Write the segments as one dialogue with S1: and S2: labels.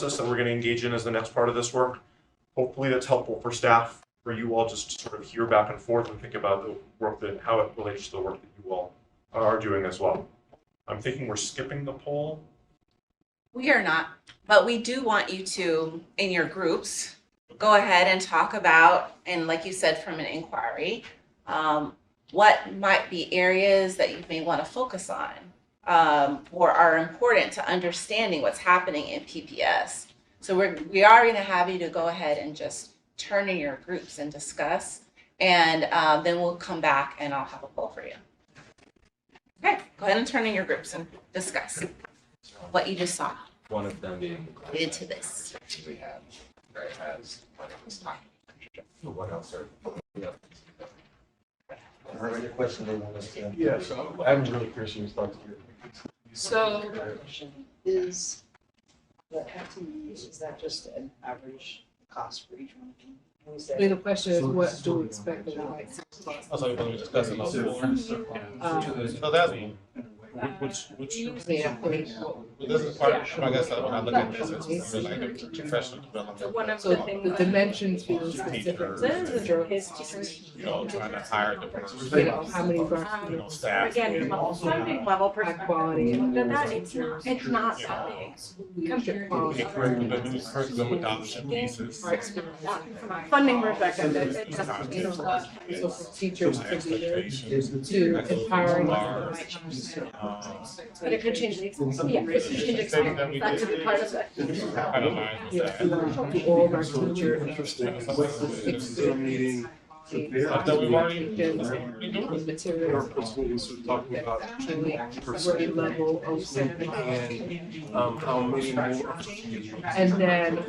S1: process that we're going to engage in as the next part of this work. Hopefully, that's helpful for staff, for you all just to sort of hear back and forth and think about the work that, how it relates to the work that you all are doing as well. I'm thinking we're skipping the poll.
S2: We are not, but we do want you to, in your groups, go ahead and talk about, and like you said, from an inquiry, um, what might be areas that you may want to focus on um, or are important to understanding what's happening in PPS. So we're, we are going to have you to go ahead and just turn in your groups and discuss, and uh, then we'll come back and I'll have a poll for you. Okay, go ahead and turn in your groups and discuss what you just saw
S3: One of them being.
S2: related to this.
S3: We had, right, has. What else are?
S4: I heard your question, they want us to.
S5: Yeah, so I'm really curious who's talking
S6: So is the FTEs, is that just an average cost for each one of them? Or is that-
S7: I mean, the question is, what do we expect in the next month?
S5: I thought you were discussing those
S7: Um,
S5: So that's, well,
S1: Which, which,
S7: Yeah, I mean,
S5: this is part, I guess, when I look at this, it's just like a professional
S6: So
S5: development.
S6: one of
S7: so
S6: the things.
S7: the dimensions being specific.
S6: This is
S7: Sure.
S6: his teachers.
S5: You know, trying to hire the person,
S7: You know, how many
S8: Um,
S7: of
S5: you
S7: our
S5: know, staff.
S8: Again,
S5: you
S8: from
S5: know,
S8: a funding level
S7: high
S8: perspective,
S7: quality and.
S8: but that, it's not, it's not that big compared to.
S5: We can correct them, but we can correct them with dollars and pieces.
S7: Our experience.
S8: From a funding perspective, it's, it's just, you know, uh,
S7: So for teachers
S5: My
S7: to be there
S5: expectations.
S7: to empowering.
S5: Uh,
S8: but it could change the, ex- yeah, it could change
S5: Things that we
S8: experience, that could be part of it.
S5: Kind of lines with
S7: Yeah,
S5: that.
S7: to all of our teachers.
S9: meeting
S5: I thought we've already.
S7: Because
S5: we do it.
S7: the materials
S9: talking
S7: that
S9: about
S7: actually grade level of.
S9: and um, how many more.
S7: And then.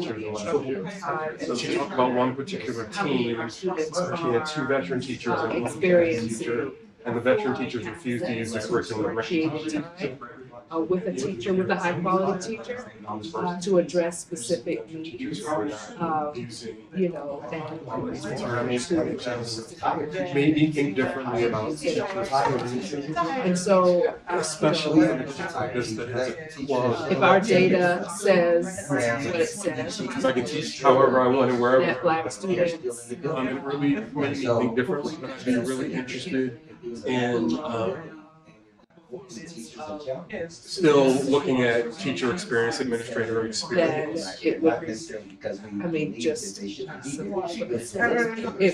S9: So she talked about one particular team. She
S7: She
S9: had two veteran teachers
S7: uh,
S9: and one veteran
S7: Experience.
S9: teacher, and the veteran teachers refused to use the curriculum.
S7: Appreciate your time, uh, with a teacher, with a high quality teacher, uh, to address specific needs, uh, you know, and.
S9: Maybe think differently about.
S7: And so, uh, you know,
S9: Especially in a case like this that has a clause.
S7: if our data says what it says,
S9: Because I can teach however I want and wherever.
S7: that black students,
S9: Um, it really made me think differently, and I've been really interested in,
S4: uh,
S9: um, uh, still looking at teacher experience, administrator
S7: then
S9: experience.
S7: it would, I mean, just. It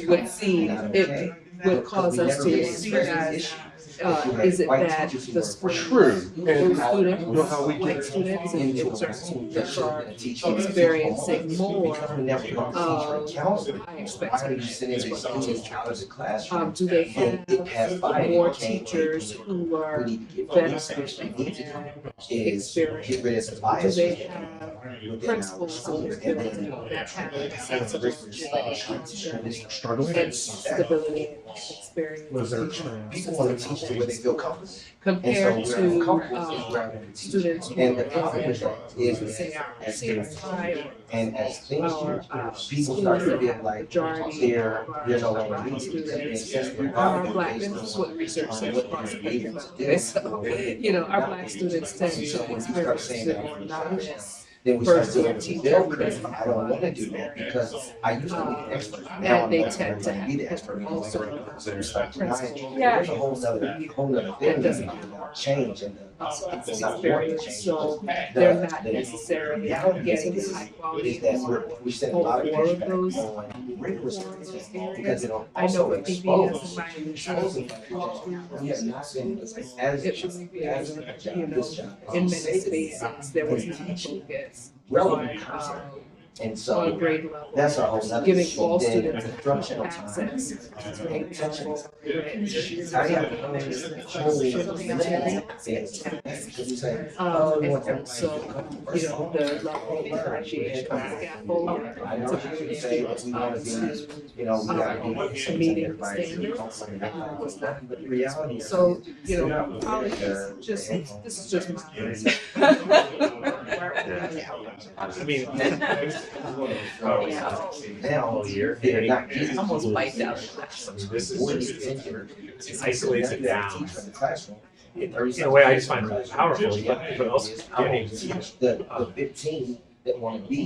S7: would seem, it would cause us to scrutinize, uh, is it that the school.
S9: True,
S7: those
S9: and
S7: students,
S9: know how we
S7: white
S9: get.
S7: students, and it's our students are experiencing
S4: Experiencing
S7: more of high
S4: expectations.
S7: Um, do they have more teachers who are veterans and experienced? Do they have principals who are experienced that have a sense of responsibility and stability and experience
S4: where they feel comfortable.
S7: compared
S4: And so we're
S7: to,
S4: uncomfortable is
S7: um,
S4: where I'm teaching.
S7: students who
S4: And the
S7: are
S4: problem with that is
S7: say,
S4: that
S7: our
S4: as
S7: seniors
S4: parents,
S7: high
S4: and as
S7: or,
S4: things
S7: or,
S4: change,
S7: uh,
S4: people start to feel like
S7: majority of
S4: they're,
S7: our
S4: they're no longer
S7: black
S4: needed. because they
S7: students
S4: assess their
S7: are
S4: value
S7: black,
S4: based
S7: this is
S4: on
S7: what research
S4: on
S7: says.
S4: what
S7: about
S4: they're able
S7: black people.
S4: to do.
S7: And so, you know, our black students tend to
S4: So when you start
S7: experience
S4: saying
S7: it
S4: that
S7: more
S4: from
S7: knowledge.
S4: Then we start
S7: First,
S4: doing teacher, because I don't wanna do that because I used to be
S7: Uh,
S4: the expert. Now
S7: And
S4: I'm
S7: they
S4: not
S7: tend to
S4: gonna be the
S7: have
S4: expert.
S7: different
S4: anymore.
S7: also principles.
S6: Yeah.
S4: There's a whole nother, whole nother thing
S7: That doesn't-
S4: about change and the, it's not going to
S7: experience,
S4: change.
S7: so
S4: The-
S7: they're not
S4: the-
S7: necessarily
S4: Yeah, I don't get
S7: getting
S4: it.
S7: high
S4: is
S7: quality.
S4: that we're, we set a
S7: Well,
S4: lot of
S7: all of
S4: pushback
S7: those-
S4: on rigorous
S7: all of those
S4: curriculum because it
S7: I know
S4: also
S7: what PBS is
S4: exposes.
S7: my
S4: exposes that
S7: initial,
S4: We have not been as,
S7: it was,
S4: as
S7: you
S4: a job, this
S7: know,
S4: job.
S7: in
S4: is
S7: many spaces, there was not a focus
S4: Relevant
S7: um,
S4: concept. And
S7: on
S4: so
S7: grade level.
S4: that's our whole nother.
S7: Giving
S4: issue.
S7: all
S4: Then
S7: students
S4: instructional time.
S7: access to a
S4: Intentional.
S7: cultural rich,
S4: I have a whole level of things. Because we say, oh,
S7: Um,
S4: we want
S7: and
S4: everybody to
S7: so,
S4: come
S7: you
S4: first.
S7: know, the level of differentiation, scaffold,
S4: I know how you say, we
S7: um,
S4: wanna be,
S7: to
S4: you know, we gotta be.
S7: Um, meeting
S4: everybody to
S7: standards,
S4: come from that.
S7: um, was not-
S4: But the reality is.
S7: So, you know,
S4: Yeah.
S7: colleges, just, this is just my.
S5: I mean.
S4: Now, they're not getting.
S6: Almost wiped out.
S4: Isolates it down. In uh,
S10: In a way, I just find it powerful, but but also getting
S4: The, the big team that want to be